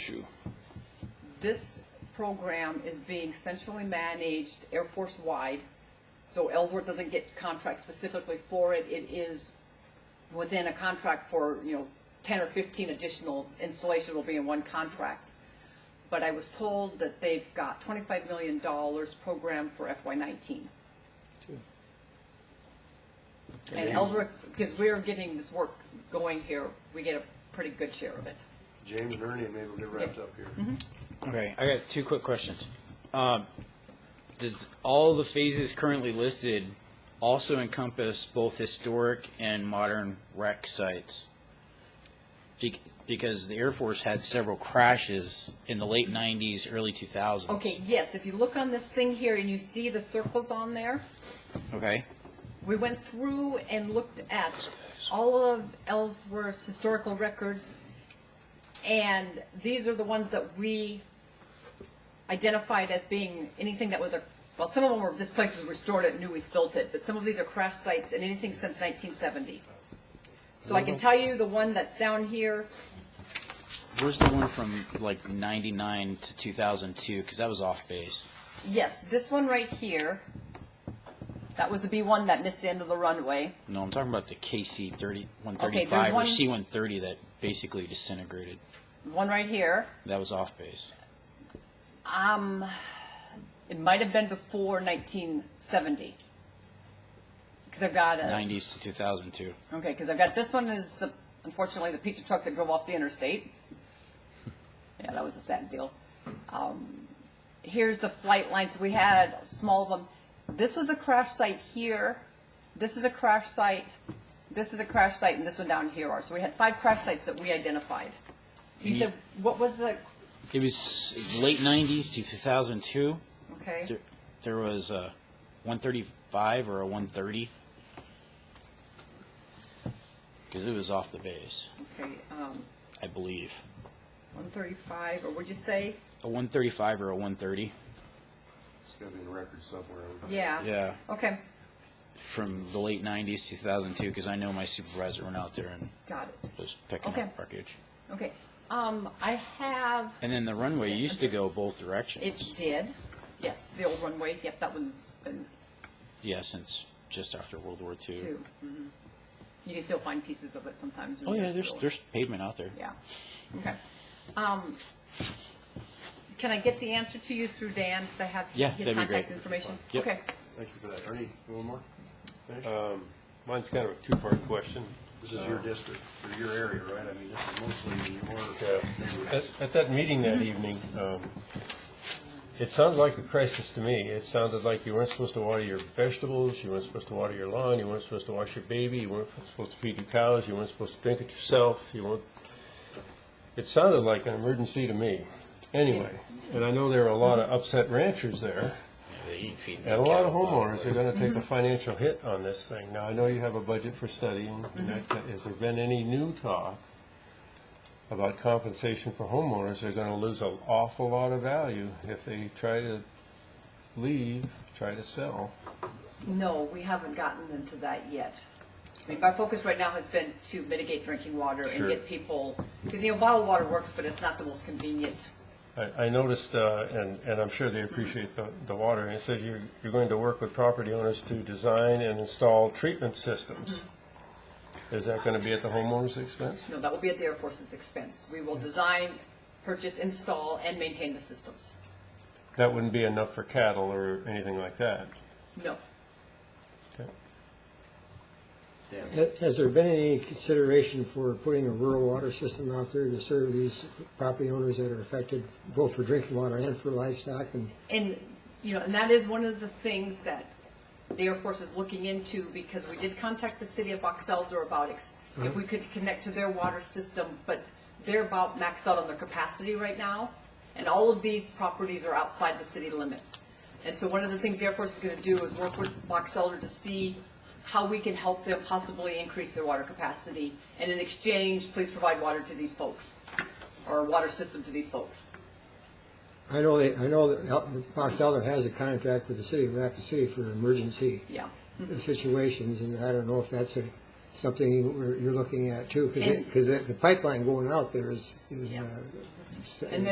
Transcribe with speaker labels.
Speaker 1: issue.
Speaker 2: This program is being centrally managed Air Force-wide, so Ellsworth doesn't get contracts specifically for it. It is within a contract for, you know, 10 or 15 additional installations will be in one contract. But I was told that they've got $25 million programmed for FY19. And Ellsworth, because we're getting this work going here, we get a pretty good share of it.
Speaker 3: James and Ernie, maybe we'll get wrapped up here.
Speaker 4: Okay, I got two quick questions. Um, Does all the phases currently listed also encompass both historic and modern wreck sites? Bec- Because the Air Force had several crashes in the late 90s, early 2000s.
Speaker 2: Okay, yes, if you look on this thing here and you see the circles on there,
Speaker 4: Okay,
Speaker 2: we went through and looked at all of Ellsworth's historical records, and these are the ones that we identified as being anything that was a, well, some of them were just places we stored it, knew we spilt it, but some of these are crash sites and anything since 1970. So I can tell you the one that's down here,
Speaker 4: where's the one from like 99 to 2002? Because that was off base.
Speaker 2: Yes, this one right here, that was the B1 that missed the end of the runway.
Speaker 4: No, I'm talking about the KC 30,
Speaker 2: Okay,
Speaker 4: 135
Speaker 2: there's
Speaker 4: or
Speaker 2: one-
Speaker 4: C-130 that basically disintegrated.
Speaker 2: One right here,
Speaker 4: That was off base.
Speaker 2: um, it might have been before 1970. Because I've got a,
Speaker 4: 90s to 2002.
Speaker 2: okay, because I've got, this one is the, unfortunately, the pizza truck that drove off the interstate. Yeah, that was a sad deal. Um, here's the flight lines, we had a small one. This was a crash site here, this is a crash site, this is a crash site, and this one down here are. So we had five crash sites that we identified. You said, what was the,
Speaker 4: It was late 90s to 2002.
Speaker 2: okay,
Speaker 4: There, there was a 135 or a 130. Because it was off the base,
Speaker 2: okay, um,
Speaker 4: I believe.
Speaker 2: one thirty-five, or would you say?
Speaker 4: A 135 or a 130.
Speaker 3: It's gotta be in record somewhere.
Speaker 2: Yeah.
Speaker 4: Yeah,
Speaker 2: Okay,
Speaker 4: from the late 90s, 2002, because I know my supervisor went out there and
Speaker 2: got it,
Speaker 4: was picking
Speaker 2: Okay.
Speaker 4: up wreckage.
Speaker 2: okay. Um, I have,
Speaker 4: And then the runway used to go both
Speaker 2: it
Speaker 4: directions.
Speaker 2: did, yes, the old runway, yep, that one's been
Speaker 4: Yeah, since just after World War II.
Speaker 2: too. Mhm. You can still find pieces of it sometimes. when
Speaker 4: Oh
Speaker 2: you
Speaker 4: yeah,
Speaker 2: go
Speaker 4: there's
Speaker 2: through.
Speaker 4: there's pavement out there.
Speaker 2: Yeah, okay. Um, can I get the answer to you through Dan, because I have
Speaker 4: Yeah,
Speaker 2: his
Speaker 4: that'd be
Speaker 2: contact
Speaker 4: great.
Speaker 2: information?
Speaker 4: Yep.
Speaker 2: Okay,
Speaker 3: Thank you for that. Ernie, you want more? Finish?
Speaker 5: Mine's kind of a two-part question.
Speaker 3: This is your district, or your area, right? I mean, this is mostly your
Speaker 5: At,
Speaker 3: neighborhood.
Speaker 5: at that meeting that evening, um, it sounded like a crisis to me. It sounded like you weren't supposed to water your vegetables, you weren't supposed to water your lawn, you weren't supposed to wash your baby, you weren't supposed to feed your cows, you weren't supposed to drink it yourself, you weren't, it sounded like an emergency to me, anyway. And I know there are a lot of upset ranchers there.
Speaker 4: They eat feed
Speaker 5: And a lot of homeowners are gonna take a financial hit on this thing. Now, I know you have a budget for studying, and that, that- has there been any new talk about compensation for homeowners? They're gonna lose an awful lot of value if they try to leave, try to sell.
Speaker 2: no, we haven't gotten into that yet. I mean, our focus right now has been to mitigate drinking water and
Speaker 5: Sure.
Speaker 2: get people, because, you know, bottled water works, but it's not the most convenient.
Speaker 5: I, I noticed, uh, and, and I'm sure they appreciate the, the water, and it says you're, you're going to work with property owners to design and install treatment systems. Is that gonna be at the homeowner's expense?
Speaker 2: No, that will be at the Air Force's expense. We will design, purchase, install, and maintain the systems.
Speaker 5: That wouldn't be enough for cattle or anything like that.
Speaker 2: No.
Speaker 5: Okay.
Speaker 6: Ha- Has there been any consideration for putting a rural water system out there to serve these property owners that are affected, both for drinking water and for livestock? And
Speaker 2: And, you know, and that is one of the things that the Air Force is looking into because we did contact the city of Box Elder about ex- if we could connect to their water system, but they're about maxed out on their capacity right now. And all of these properties are outside the city limits. And so one of the things the Air Force is going to do is work with Box Elder to see how we can help them possibly increase their water capacity. And in exchange, please provide water to these folks or a water system to these folks.
Speaker 6: I know, they- I know that El- that Box Elder has a contract with the city of Rapid City for emergency
Speaker 2: Yeah.
Speaker 6: situations, and I don't know if that's a- something you- you're looking at too, because the pipeline going out there is, is uh,
Speaker 7: st-
Speaker 6: And then